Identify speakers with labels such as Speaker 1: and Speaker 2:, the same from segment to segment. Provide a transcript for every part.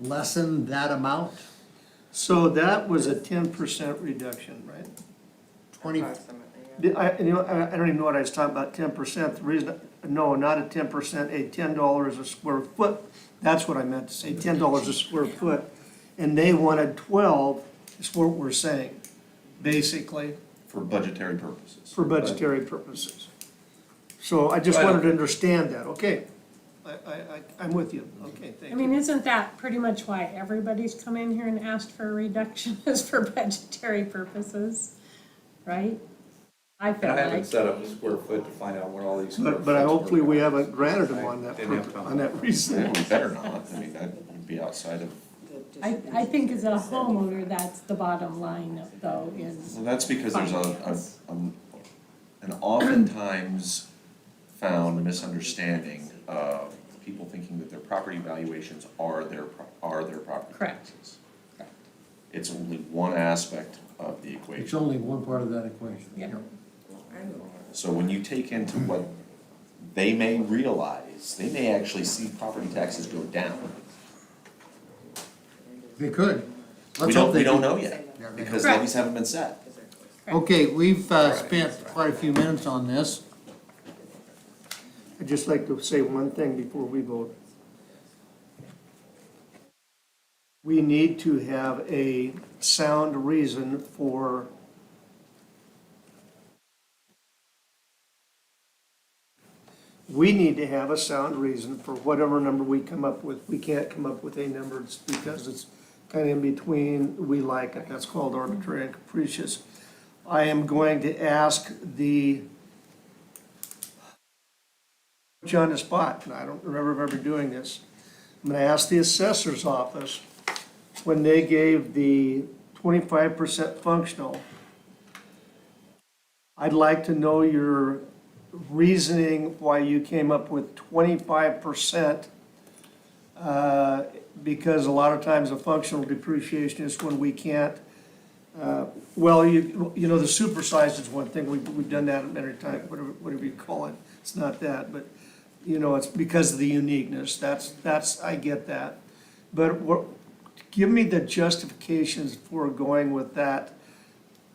Speaker 1: lessen that amount?
Speaker 2: So that was a ten percent reduction, right?
Speaker 1: Twenty,
Speaker 3: Approximately, yeah.
Speaker 2: The- I, you know, I I don't even know what I was talking about, ten percent, the reason, no, not a ten percent, a ten dollars a square foot. That's what I meant to say, ten dollars a square foot, and they wanted twelve, is what we're saying, basically,
Speaker 4: for budgetary purposes.
Speaker 2: for budgetary purposes. So I just
Speaker 4: Right.
Speaker 2: wanted to understand that, okay, I, I, I- I'm with you, okay,
Speaker 5: I
Speaker 2: thank
Speaker 5: mean,
Speaker 2: you.
Speaker 5: isn't that pretty much why everybody's come in here and asked for a reduction is for budgetary purposes, right? I
Speaker 6: And
Speaker 5: feel
Speaker 6: I haven't
Speaker 5: like,
Speaker 6: set up a square foot to find out what all these. square
Speaker 2: But, but I,
Speaker 6: foots were.
Speaker 2: hopefully we haven't granted them on that,
Speaker 6: Didn't have
Speaker 2: purpose-
Speaker 6: time.
Speaker 2: on that reason.
Speaker 4: Yeah, we better not, I mean, that would be outside of,
Speaker 5: I, I think as a homeowner, that's the bottom line though, is
Speaker 4: well, that's because there's a, a, um, an oftentimes found misunderstanding of people thinking that their property valuations are their, pro- are their property
Speaker 5: Correct.
Speaker 4: taxes. It's only one aspect of the equation.
Speaker 1: it's only one part of that equation.
Speaker 5: Yeah.
Speaker 4: So when you take into what they may realize, they may actually see property taxes go down.
Speaker 1: They could.
Speaker 4: We
Speaker 1: Let's
Speaker 4: don't,
Speaker 1: hope they
Speaker 4: we don't
Speaker 1: do.
Speaker 4: know yet,
Speaker 1: Yeah, they
Speaker 4: because
Speaker 5: Correct.
Speaker 4: levies haven't been set.
Speaker 1: Okay, we've uh, spent quite a few minutes on this.
Speaker 2: I'd just like to say one thing before we vote. We need to have a sound reason for we need to have a sound reason for whatever number we come up with. We can't come up with a number just because it's kind of in between, we like it, that's called arbitrary and capricious. I am going to ask the put you on the spot, and I don't remember ever doing this. I'm gonna ask the assessor's office, when they gave the twenty-five percent functional, I'd like to know your reasoning why you came up with twenty-five percent. uh, Because a lot of times a functional depreciation is when we can't, uh, well, you, you know, the supersized is one thing, we've, we've done that many times, whatever, whatever you call it, it's not that, but you know, it's because of the uniqueness, that's, that's, I get that. But what, give me the justifications for going with that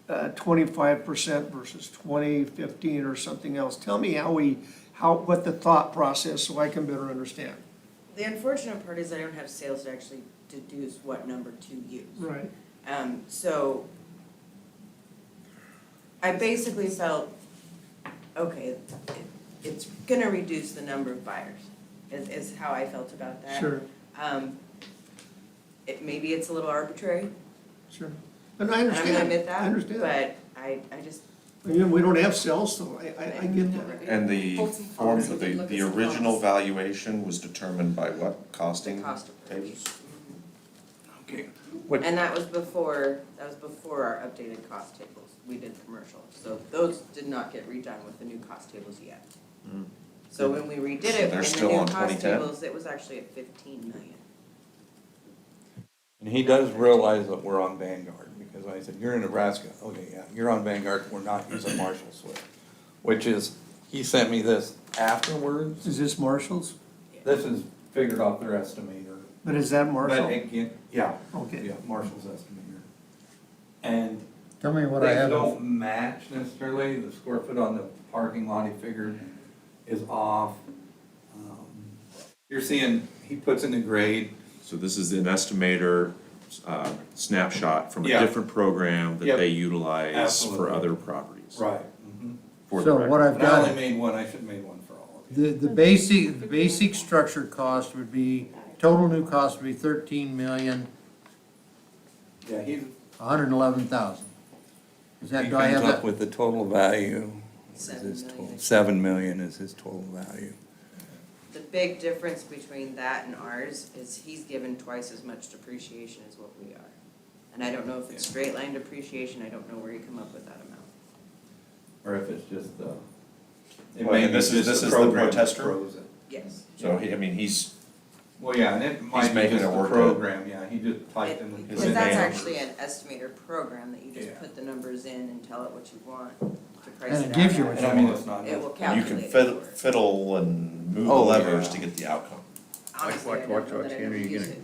Speaker 2: uh, twenty-five percent versus twenty, fifteen, or something else. Tell me how we, how, what the thought process, so I can better understand.
Speaker 3: The unfortunate part is I don't have sales to actually deduce what number to use.
Speaker 2: Right.
Speaker 3: Um, so I basically felt, okay, it, it's gonna reduce the number of buyers, is, is how I felt about that.
Speaker 2: Sure,
Speaker 3: Um, it, maybe it's a little arbitrary,
Speaker 2: sure. And I
Speaker 3: and I'm
Speaker 2: understand,
Speaker 3: gonna admit that,
Speaker 2: I understand.
Speaker 3: but I, I just,
Speaker 2: You know, we don't have sales, so I, I, I get that.
Speaker 4: And the form, the, the original valuation was determined by what
Speaker 3: the
Speaker 4: costing
Speaker 3: cost of
Speaker 4: tables?
Speaker 3: purchase.
Speaker 2: Okay.
Speaker 3: And that was before, that was before our updated cost tables, we did commercial, so those did not get redone with the new cost tables yet. So when we redid it,
Speaker 4: So Hmm. they're
Speaker 3: in the
Speaker 4: still
Speaker 3: new
Speaker 4: on
Speaker 3: cost
Speaker 4: 2010?
Speaker 3: tables, it was actually at fifteen million.
Speaker 6: And he does realize that we're on Vanguard, because I said, you're in Nebraska, okay, yeah, you're on Vanguard, we're not using Marshall Swift. Which is, he sent me this afterwards,
Speaker 2: Is this Marshall's?
Speaker 6: this is figured off their estimator.
Speaker 2: But is that
Speaker 6: But
Speaker 2: Marshall?
Speaker 6: again, yeah,
Speaker 2: Okay.
Speaker 6: yeah, Marshall's estimator. And
Speaker 1: Tell me what I
Speaker 6: They
Speaker 1: have.
Speaker 6: don't match necessarily, the square foot on the parking lot he figured is off. Um, You're seeing, he puts in the grade,
Speaker 4: So this is an estimator uh, snapshot from a
Speaker 6: Yeah.
Speaker 4: different program that
Speaker 6: Yep.
Speaker 4: they utilize for
Speaker 6: Absolutely.
Speaker 4: other properties.
Speaker 6: right.
Speaker 4: For the
Speaker 1: So
Speaker 4: record.
Speaker 1: what I've
Speaker 6: And Mm-hmm. I
Speaker 1: got,
Speaker 6: only made one, I should have made one for all of you.
Speaker 1: the, the basic, the basic structure cost would be, total new cost would be thirteen million,
Speaker 6: Yeah, he's.
Speaker 1: a hundred and eleven thousand. Is that,
Speaker 6: he
Speaker 1: do I have
Speaker 6: comes up
Speaker 1: that?
Speaker 6: With the total value. is
Speaker 3: Seven
Speaker 6: his
Speaker 3: million.
Speaker 6: total- Seven million is his total value.
Speaker 3: The big difference between that and ours is he's given twice as much depreciation as what we are. And I don't know if it's straight line depreciation, I don't know where you come up with that amount.
Speaker 6: Or if it's just the. it
Speaker 4: Well,
Speaker 6: may
Speaker 4: and
Speaker 6: be
Speaker 4: this is-
Speaker 6: just
Speaker 4: this is the
Speaker 6: program that
Speaker 4: protester?
Speaker 6: froze it.
Speaker 3: Yes.
Speaker 4: So, he- I mean, he's,
Speaker 6: Well, yeah, and it might be
Speaker 4: making
Speaker 6: just
Speaker 4: it
Speaker 6: the
Speaker 4: work out.
Speaker 6: program, yeah, he just typed in. the-
Speaker 3: It-
Speaker 4: Is
Speaker 3: Because
Speaker 4: it
Speaker 3: that's
Speaker 4: a-
Speaker 3: actually an estimator program that you just
Speaker 6: Yeah.
Speaker 3: put the numbers in and tell it what you want to price it out.
Speaker 1: And it gives you
Speaker 3: at.
Speaker 1: what
Speaker 6: And I mean, it's not.
Speaker 3: It will
Speaker 4: and you
Speaker 3: calculate
Speaker 4: can
Speaker 3: it
Speaker 4: fiddle,
Speaker 3: for it.
Speaker 4: fiddle and move the
Speaker 6: Oh,
Speaker 4: levers
Speaker 6: yeah.
Speaker 4: to get the outcome.
Speaker 3: Honestly, I
Speaker 7: Like,
Speaker 3: don't
Speaker 7: what- what
Speaker 3: know that I
Speaker 7: Roxanne are
Speaker 3: ever
Speaker 7: you
Speaker 3: use
Speaker 7: getting?
Speaker 3: it.